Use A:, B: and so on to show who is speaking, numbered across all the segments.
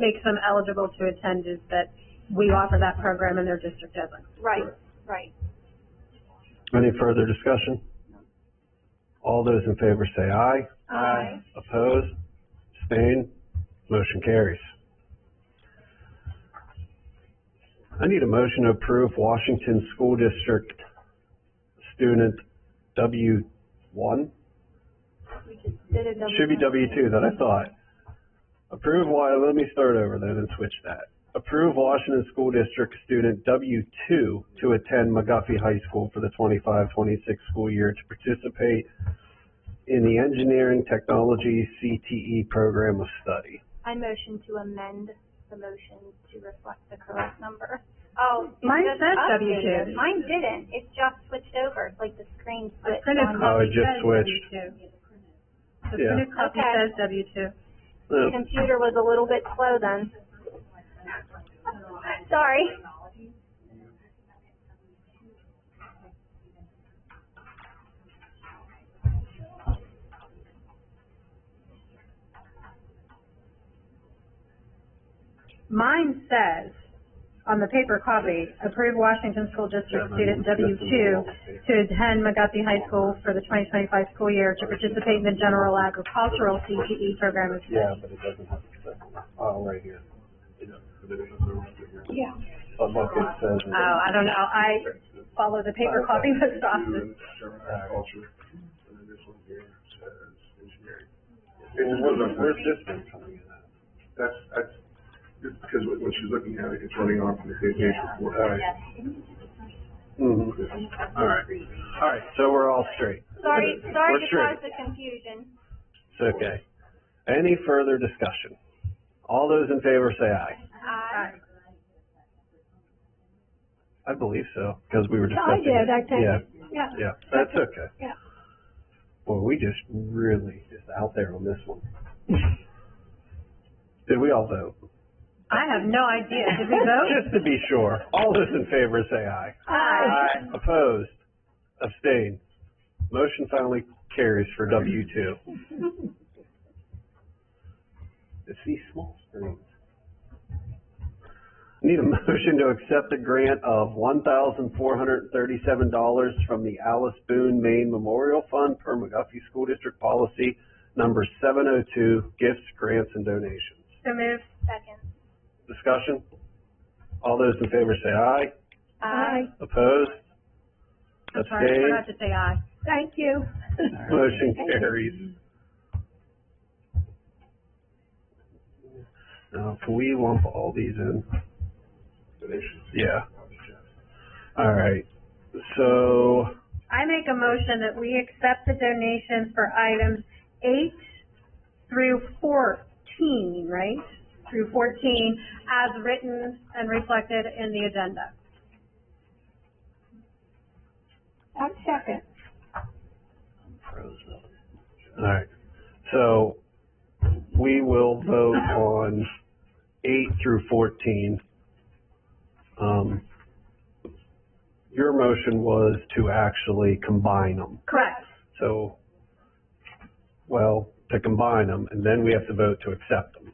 A: makes them eligible to attend is that we offer that program and their district doesn't.
B: Right, right.
C: Any further discussion? All those in favor say aye.
B: Aye.
C: Opposed? Abstained? Motion carries. I need a motion to approve Washington School District student W one?
B: We just did a double.
C: Should be W two that I thought. Approve Wa, let me start over then and switch that. Approve Washington School District student W two to attend McGuffey High School for the 25-26 school year to participate in the Engineering Technology CTE Program of Study.
B: I motion to amend the motion to reflect the correct number. Oh. it
A: Mine
B: just
A: says
B: updated.
A: W2.
B: Mine didn't, it just switched over, like the screen
A: The
B: switched
A: printed
B: on.
C: Oh, it
A: copy
C: just
A: says
C: switched.
A: W2. The
C: Yeah.
A: printed copy
B: Okay.
A: says W two.
B: The
C: No,
B: Computer was a little bit slow then. Sorry.
A: Mine says, on the paper copy, approve Washington School District student W two to attend McGuffey High School for the twenty twenty-five school year to participate in the general agricultural CTE program of
C: Yeah,
A: study.
C: but it doesn't have to, oh, right here. Yeah.
B: Yeah.
C: look, it says. it.
A: Oh, I don't know, I follow the paper copy most often.
D: And what, where's this,
C: one coming in at?
D: that's, that's, it's because what what she's looking at, it's running off the same page before. All right.
C: Mhm. All right, all right, so we're all straight.
B: Sorry,
C: We're
B: sorry to
C: straight.
B: cause the confusion.
C: It's okay. Any further discussion? All those in favor say aye.
B: Aye.
C: I believe so, because we were
E: Yeah, I
C: discussing.
E: did,
C: it.
E: I think,
C: Yeah,
E: yeah.
C: yeah, that's okay.
E: Yeah.
C: Well, we just really just out there on this one. Did we all vote?
A: I have no idea, did we vote?
C: Just to be sure, all those in favor say aye.
A: Aye.
C: Opposed? Abstained? Motion finally carries for W two. It's these small screens. Need a motion to accept a grant of one thousand four hundred and thirty-seven dollars from the Alice Boone Maine Memorial Fund per McGuffey School District Policy Number seven oh two, gifts, grants, and donations.
A: So moved.
B: Second.
C: Discussion? All those in favor say aye.
B: Aye.
C: Opposed?
A: I'm sorry, I forgot
C: Abstained?
A: to say aye.
E: Thank you.
C: Motion carries. Now, can we lump all these in? Yeah. All right, so,
A: I make a motion that we accept the donation for items eight through fourteen, right? Through fourteen, as written and reflected in the agenda.
E: I'm second.
C: all right, so we will vote on eight through fourteen. Um, your motion was to actually combine them.
A: Correct.
C: So, well, to combine them, and then we have to vote to accept them.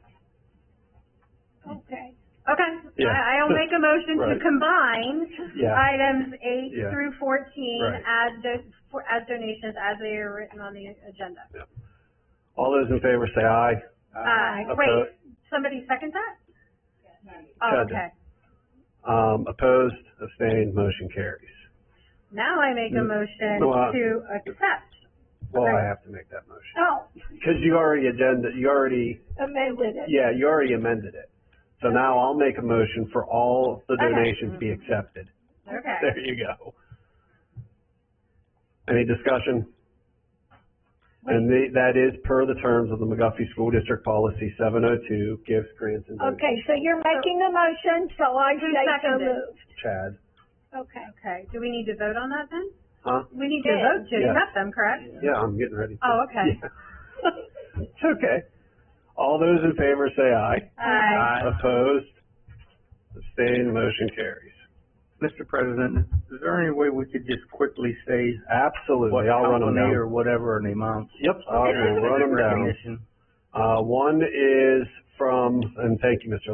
E: Okay.
A: Okay,
C: Yeah.
A: I, I'll make a motion to
C: Right.
A: combine
C: Yeah.
A: items eight
C: Yeah.
A: through fourteen
C: Right.
A: as do, for, as donations as they are written on the agenda.
C: All those in favor say aye.
A: Aye.
C: Oppo-
A: Uh, Wait, somebody second that? Oh,
C: Second.
A: okay.
C: Um, opposed, abstained, motion carries.
A: Now I make a
C: Mm.
A: motion
C: No, I-
A: to accept.
C: Well, I
A: Right.
C: have to make that motion,
E: Oh,
C: because you already agenda, you already,
E: amended it.
C: yeah, you already amended it. So now I'll make a motion for all the
A: Okay.
C: donations be accepted.
A: Okay.
C: There you go. Any discussion? And the, that is per the terms of the McGuffey School District Policy seven oh two, gifts, grants, and donations.
E: Okay, so you're making the motion, so I
A: Who
E: say so
A: seconded?
E: moved.
C: Chad,
E: Okay.
A: Okay, do we need to vote on that then?
C: huh?
A: We need to
E: Yeah.
A: vote to
C: Yeah.
A: accept them, correct?
C: Yeah, I'm getting ready. to-
A: Oh, okay.
C: Yeah. It's okay. All those in favor say aye.
A: Aye.
C: Opposed? Abstained, motion carries.
F: Mr. President, is there any way we could just quickly say what
C: Absolutely, I'll run them
F: company
C: down.
F: or whatever and the amount?
C: Yep, I'll run them down.
F: Recognition.
C: Uh, one is from, and thank you, Mr.